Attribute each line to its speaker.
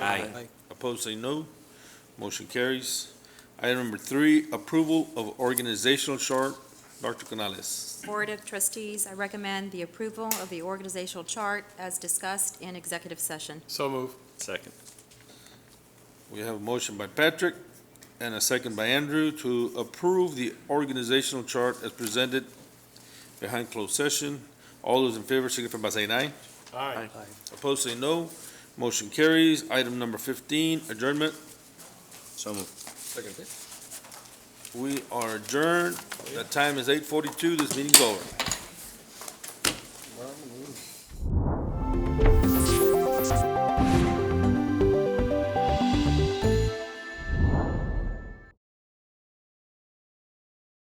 Speaker 1: Aye.
Speaker 2: Opposed, say no. Motion carries. Item number three, approval of organizational chart. Dr. Canales.
Speaker 3: Board of Trustees, I recommend the approval of the organizational chart as discussed in executive session.
Speaker 4: So move.
Speaker 1: Second.
Speaker 2: We have a motion by Patrick and a second by Andrew to approve the organizational chart as presented behind closed session. All those in favor signify by saying aye.
Speaker 4: Aye.
Speaker 2: Opposed, say no. Motion carries. Item number fifteen, adjournment.
Speaker 1: So moved.
Speaker 2: We are adjourned. The time is eight forty-two. This meeting's over.